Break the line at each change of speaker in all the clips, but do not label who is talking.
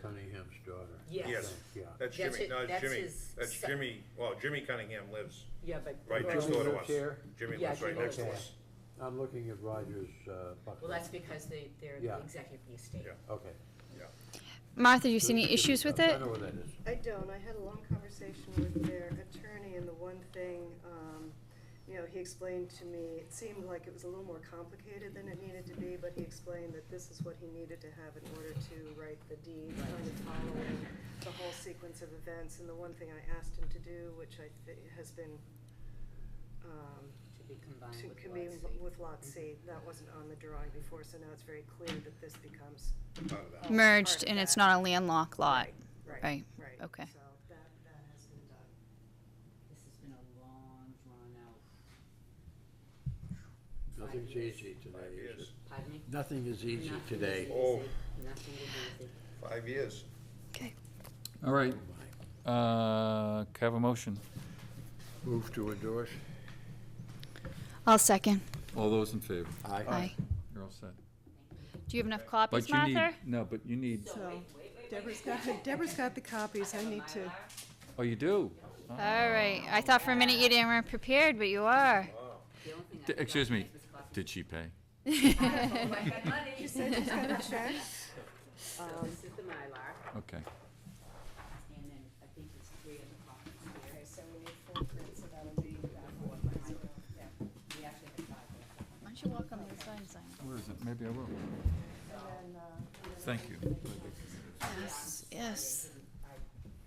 Cunningham's daughter.
Yes.
Yes,
Yeah.
that's
That's
Jimmy,
it-
no, it's
that's
Jimmy,
his
that's
son.
Jimmy, well, Jimmy Cunningham lives
Yeah, but.
right
Jimmy
next door to
lives
us.
here?
Jimmy
Yeah,
lives right
Jimmy
next to
lives
us.
I'm looking at Roger's uh, bucket.
Well, that's because they, they're
Yeah.
the executive of the estate.
Yeah.
Okay.
Martha, you see any issues with
I
it?
know where that is.
I don't. I had a long conversation with their attorney, and the one thing, um, you know, he explained to me, it seemed like it was a little more complicated than it needed to be, but he explained that this is what he needed to have in order to write the deed, kind of following the whole sequence of events. And the one thing I asked him to do, which I think has been, um,
To be combined
to
with
commune
Lot C.
with Lot C, that wasn't on the drawing before, so now it's very clear that this becomes
Out of that.
Merged and it's not a landlocked lot.
Right,
Right,
right.
okay.
So that, that has been done.
This has been a long, drawn-out,
Nothing's easy today, is it?
pardon me?
Nothing is easy
Nothing is
today.
easy,
Oh.
Nothing is easy.
Five years.
All right, uh, can I have a motion?
Move to endorse?
I'll second.
All those in favor?
Aye.
You're all set.
Do you have enough
But
copies,
you need,
Martha?
no, but you need,
So Deborah's got, Deborah's got the copies, I need to.
oh, you do?
All right. I thought for a minute you didn't weren't prepared, but you are.
The only thing I
D-
forgot
Excuse me,
tonight was coffee.
did she pay?
Oh, I got money. So this is the
Um,
Mylar,
Okay.
and then I think there's three of the copies here.
So we need full print, so that'll be that one, yeah.
We actually have five.
Why don't you walk on the sign sign?
Where is it? Maybe I will.
And then, uh,
Thank you.
Yes,
I
yes.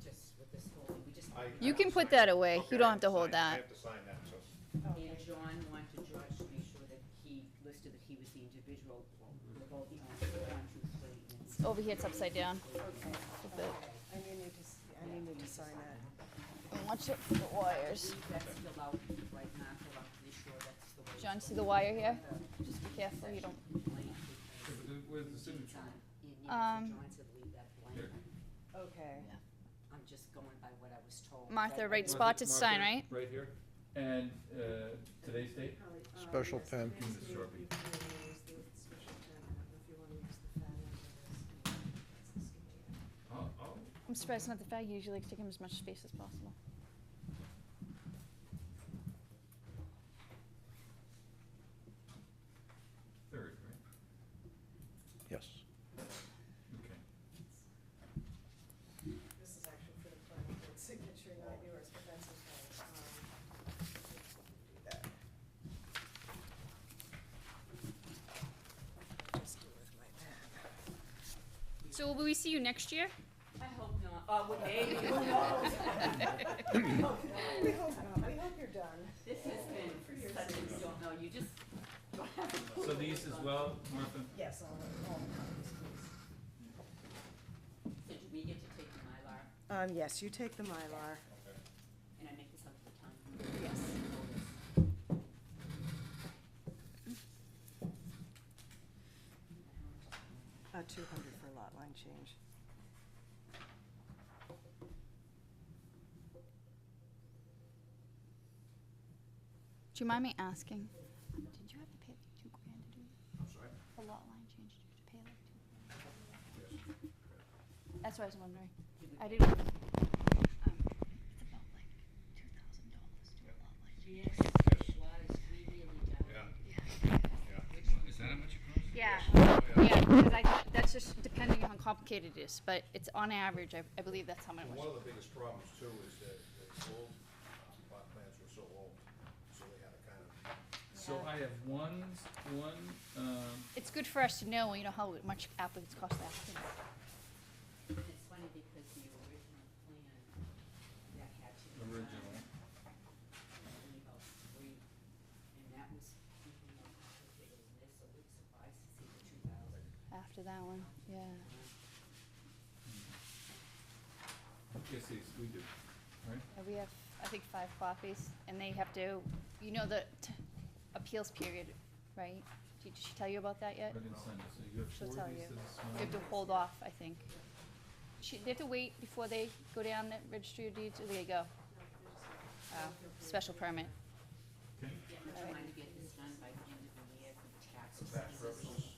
just, with this whole, we just, and
You can put that away. You don't have to hold
I
that.
have to sign that, so.
John wanted George to make sure that he listed that he was the individual, the both the owners, one, two, three, and
Over here, it's upside down.
I need you to, s- I need you to sign that.
Watch it for the wires.
that's filled out right now, so I'm pretty sure that's the way.
John, see the wire here? Just be careful you don't. Um,
John said leave that blank.
Okay.
I'm just going by what I was told.
Martha,
That-
right spot to sign, right?
Right here, and uh, today's date?
Special
Um,
pen.
oh,
I'm surprised not the fag usually like to take him as much space as possible.
Third,
Yes.
right? Okay.
This is actually for the planning board signature, not yours, but that's okay. Um, do that. Just do with my pen.
So will we see you next year?
I hope not, oh, well, hey, who knows?
We hope not, we hope you're done.
This has been, such a- you don't know, you just.
So these as well, Martha?
Yes, all, all copies, please.
So do we get to take the Mylar,
Um, yes, you take the Mylar.
and I make this up to the town?
Yes. Uh, two hundred for lot line change.
Do you mind me asking? Did you have to pay like two grand to do that?
I'm sorry?
The lot line change, did you have to pay like two? grand? That's what I was wondering. I didn't. um, It's about like two thousand dollars to do a lot line change.
Yes, it was, we really
Yeah.
don't.
Is that much?
Yeah, yeah, because I, thought- that's just depending on how complicated it is, but it's on average, I, I believe that's how much. it
One
was.
of the biggest problems too is that the old uh, plot plans were so old, so they had to kind of,
So I have one, one, um,
It's good for us to know, you know, how much applicants cost the applicant.
It's funny because the original plan that had to be done,
Original.
I believe, of three, and that was even more complicated than this, so it's surprised to see the two thousand.
After that one, yeah.
yes, these, we do, right?
Uh, We have, I think, five copies, and they have to, you know, the t- appeals period, right? Did she tell you about that
I
yet?
didn't sign it, so you have
She'll
four
tell
of these
you.
to this
You
one.
have to hold off, I think. She, they have to wait before they go down the registry of deeds, or they go? Oh, special permit.
Yeah, I'm trying to get this done by the end of the year for the taxes. Tax purposes.